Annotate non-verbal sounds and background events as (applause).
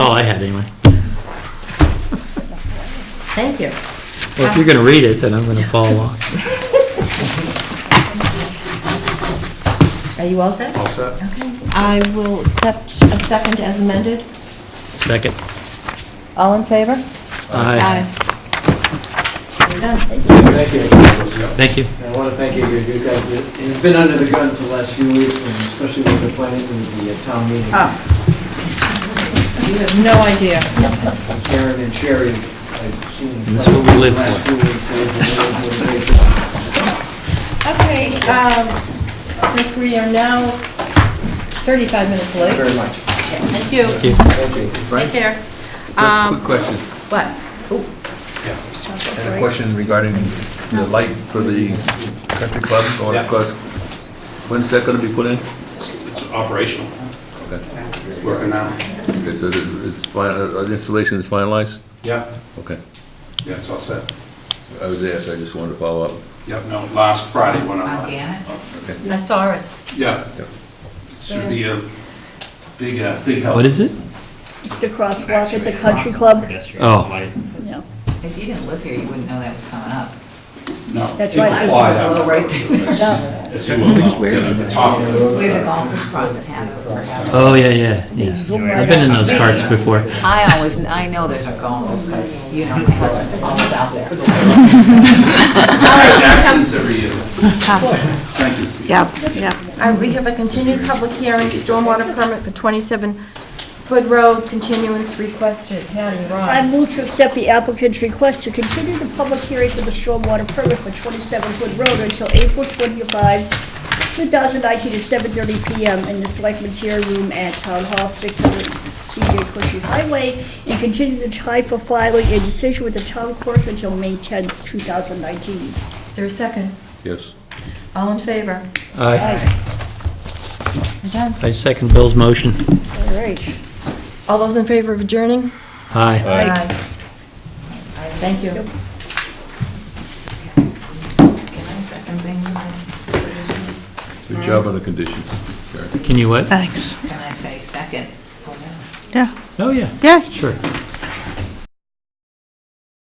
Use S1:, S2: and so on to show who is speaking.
S1: all Oh, I had anyway.
S2: Thank you.
S1: Well, if you're gonna read it, then I'm gonna follow along.
S2: Are you all set?
S3: All set?
S2: Okay. I will accept a second as amended.
S1: Second.
S2: All in favor?
S1: Aye.
S2: We're done.
S4: Thank you.
S1: Thank you.
S4: I want to thank you, you guys, it's been under the gun for the last few weeks, and especially with the planning and the uh, town meeting.
S2: You have no idea.
S4: Karen and Sherry, I've seen.
S1: That's what we live
S4: the last
S1: for.
S4: few weeks, they've been doing a great job.
S2: Okay, um, since we are now 35 minutes
S4: Thank you
S2: late.
S4: very much.
S2: Thank you.
S1: Thank you.
S4: Thank you.
S2: Take care. Um,
S5: Quick question,
S2: What?
S5: and a question regarding the light for the country club going
S3: Yeah.
S5: across. When's that gonna be put in?
S3: It's operational.
S5: Okay,
S3: It's working now.
S5: Okay, so the- it's fin- uh, the installation is finalized?
S3: Yeah,
S5: Okay,
S3: yeah, it's all set.
S5: I was asked, I just wanted to follow up.
S3: Yep, no, last Friday when I,
S6: Again?
S2: I saw it.
S3: yeah.
S5: Yep.
S3: Should be a big, uh, big help.
S1: What is it?
S7: It's the crosswalk at the country club.
S1: Oh.
S7: No,
S6: If you didn't live here, you wouldn't know that was coming up.
S3: No.
S7: That's
S3: people
S7: right.
S3: fly down.
S6: Well, right there. (laughs)
S7: no.
S3: As you will know, yeah, the top of it.
S6: We have a golfers cross at Hanover.
S1: Oh, yeah, yeah, yeah.
S7: Zoom
S1: I've
S7: right
S1: been in
S7: out.
S1: those carts before.
S6: I always, I know there's a golfers because, you know, my husband's always out there.
S3: Jackson's every year. Thank you.
S8: Yep, yep.
S2: Uh, We have a continued public hearing, stormwater permit for 27 Hood Road, continuance requested. Patty,
S7: I
S2: Ron.
S7: move to accept the applicant's request to continue the public hearing for the stormwater permit for 27 Hood Road until April 25, 2019 at 7:30 PM in the Selectmen's Hearing Room at Town Hall, 600 CJ Cushing Highway, and continue the time for filing a decision with the town clerk until May 10, 2019.
S2: Is there a second?
S5: Yes.
S2: All in favor?
S1: Aye.
S2: We're done.
S1: I second Bill's motion.
S7: All right.
S2: All those in favor of adjourning?
S1: Aye.
S5: Aye.
S2: Thank you.
S6: Can I second thing?
S5: Good job on the conditions. Karen.
S1: Can you what?
S8: Thanks.
S6: Can I say second? Oh, no.
S8: Yeah,
S1: Oh, yeah,
S8: yeah,
S1: sure.